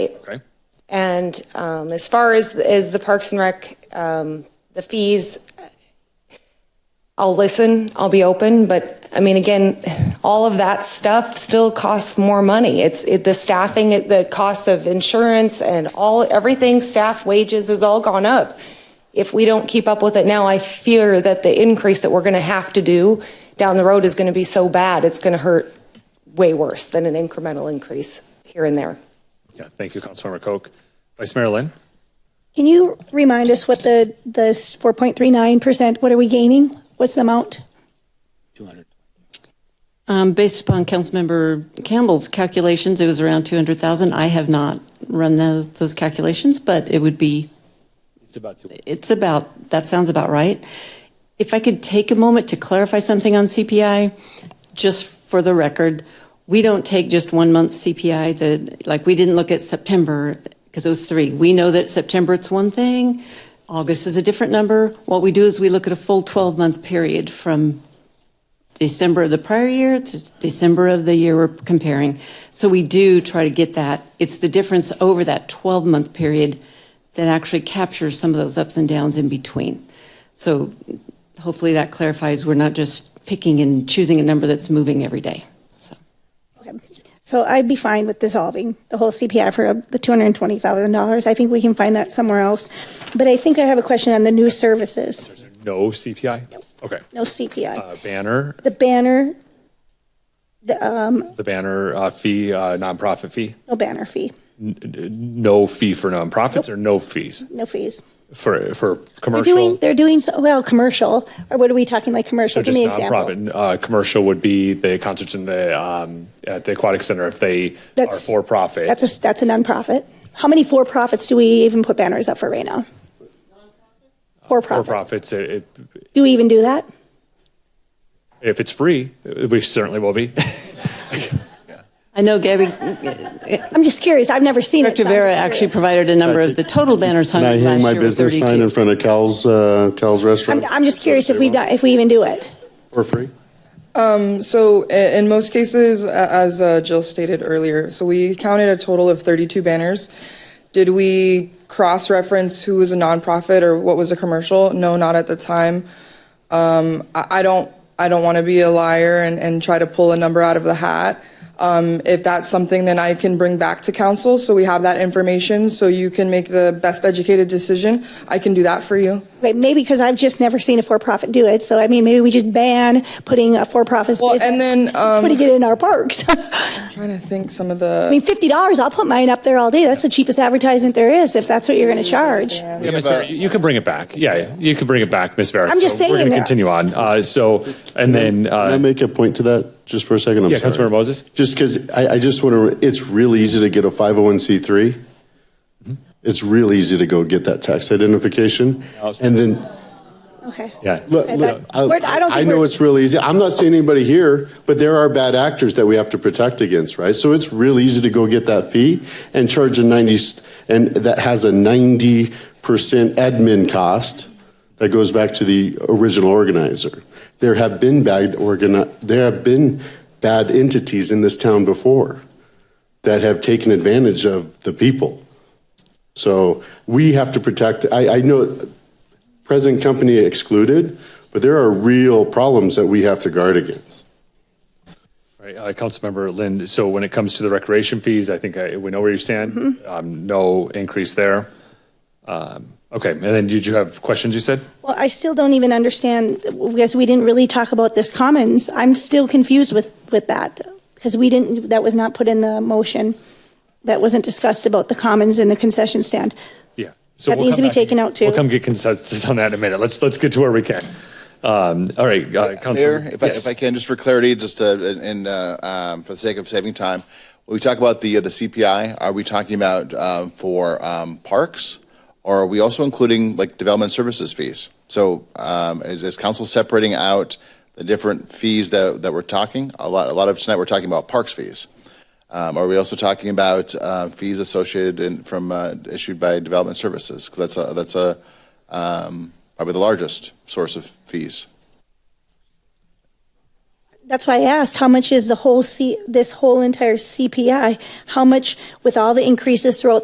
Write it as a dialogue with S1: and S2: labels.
S1: Okay.
S2: And um, as far as, as the Parks and Rec, um, the fees, I'll listen, I'll be open, but I mean, again, all of that stuff still costs more money. It's it, the staffing, it- the cost of insurance and all, everything, staff wages has all gone up. If we don't keep up with it now, I fear that the increase that we're going to have to do down the road is going to be so bad, it's going to hurt way worse than an incremental increase here and there.
S1: Yeah, thank you, Councilmember Koch. Vice Mayor Lynn?
S3: Can you remind us what the, the 4.39%, what are we gaining? What's the amount?
S4: Um, based upon Councilmember Campbell's calculations, it was around 200,000. I have not run those, those calculations, but it would be. It's about, it's about, that sounds about right. If I could take a moment to clarify something on CPI, just for the record, we don't take just one month's CPI, the, like, we didn't look at September, because it was three. We know that September it's one thing, August is a different number. What we do is we look at a full 12-month period from December of the prior year to December of the year we're comparing. So we do try to get that. It's the difference over that 12 month period that actually captures some of those ups and downs in between. So hopefully that clarifies we're not just picking and choosing a number that's moving every day. So
S3: So I'd be fine with dissolving the whole CPI for uh, the $220,000. I think we can find that somewhere else. But I think I have a question on the new services,
S1: No CPI? Okay.
S3: no CPI.
S1: Uh, Banner,
S3: The banner,
S1: the banner uh, fee, uh, nonprofit fee?
S3: no banner fee,
S1: No fee for nonprofits or no fees
S3: no fees.
S1: for, for
S3: They're doing,
S1: commercial?
S3: they're doing, so well, commercial, or what are we talking, like commercial?
S1: So
S3: Give
S1: just
S3: me an example.
S1: nonprofit. Uh, Commercial would be the concerts in the, um, at the Aquatic Center if they are
S3: That's-
S1: for profit.
S3: That's a, that's a nonprofit. How many for-profits do we even put banners up for right now?
S1: Uh, For
S3: For-profits.
S1: profits, it- it-
S3: Do we even do that?
S1: if it's free, we certainly will be.
S4: I know Gabby
S3: I'm just curious. I've never seen it.
S4: Director
S3: so I'm
S4: Vera
S3: just
S4: actually
S3: curious.
S4: provided a number of the total banners hung
S5: And I
S4: last year
S5: hang my
S4: were
S5: business sign
S4: 32.
S5: in front of Cal's, uh, Cal's
S3: I'm,
S5: Restaurant
S3: I'm just curious if we do, if we even do it.
S5: for free.
S6: So i- in most cases, a- as uh, Jill stated earlier, so we counted a total of 32 banners. Did we cross-reference who was a nonprofit or what was a commercial? No, not at the time. Um, I, I don't, I don't want to be a liar and, and try to pull a number out of the hat. Um, if that's something, then I can bring back to council, so we have that information, so you can make the best educated decision. I can do that for you.
S3: Wait, maybe because I've just never seen a for-profit do it. So I mean, maybe we just ban putting a for-profit
S6: Well,
S3: business,
S6: and then, um,
S3: putting it in our parks. I
S6: trying to think some of the.
S3: mean, fifty dollars. I'll put mine up there all day. That's the cheapest advertisement there is. If that's what you're going to charge.
S1: Yeah, Ms. Vera, you can bring it back. Yeah, yeah, you can bring it back, Ms. Vera.
S3: I'm just
S1: So We're going
S3: saying,
S1: to
S3: uh,
S1: continue on. Uh, So, and then,
S5: Can I
S1: uh,
S5: make a point to that just for a second? I'm
S1: yeah,
S5: sorry.
S1: Councilmember Moses?
S5: Just because I, I just want to, it's really easy to get a 501c3. It's real easy to go get that tax identification. And then,
S3: Okay.
S1: Yeah.
S5: look,
S3: Okay,
S5: look,
S3: but we're- I don't
S5: I
S3: think
S5: know
S3: we're-
S5: it's really easy. I'm not saying anybody here, but there are bad actors that we have to protect against, right? So it's real easy to go get that fee and charge a 90, and that has a 90% admin cost that goes back to the original organizer. There have been bad organi, there have been bad entities in this town before that have taken advantage of the people. So we have to protect, I, I know, present company excluded, but there are real problems that we have to guard against.
S1: Right, uh, Councilmember Lynn, so when it comes to the recreation fees, I think I- we know where you stand.
S3: Mm-hmm.
S1: Um, No increase there. Um, Okay, and then did you have questions, you said?
S3: Well, I still don't even understand because we didn't really talk about this commons. I'm still confused with, with that because we didn't, that was not put in the motion. That wasn't discussed about the commons and the concession stand.
S1: Yeah. So
S3: That
S1: we'll
S3: needs
S1: come
S3: to be
S1: back-
S3: taken out, too.
S1: We'll come get consensus on that in a minute. Let's, let's get to where we can. Um, All right, uh,
S7: Mayor,
S1: Councilmember.
S7: if I,
S1: yes.
S7: if I can, just for clarity, just uh, and uh, um, for the sake of saving time, when we talk about the uh, the CPI, are we talking about um, for um, parks, or are we also including like development services fees? So um, is, is council separating out the different fees that, that we're talking? A lot a lot of tonight we're talking about parks fees. Um, are we also talking about uh, fees associated in, from uh, issued by development services? 'Cause that's a that's a um, probably the largest source of fees.
S3: That's why I asked, how much is the whole C, this whole entire CPI? How much with all the increases throughout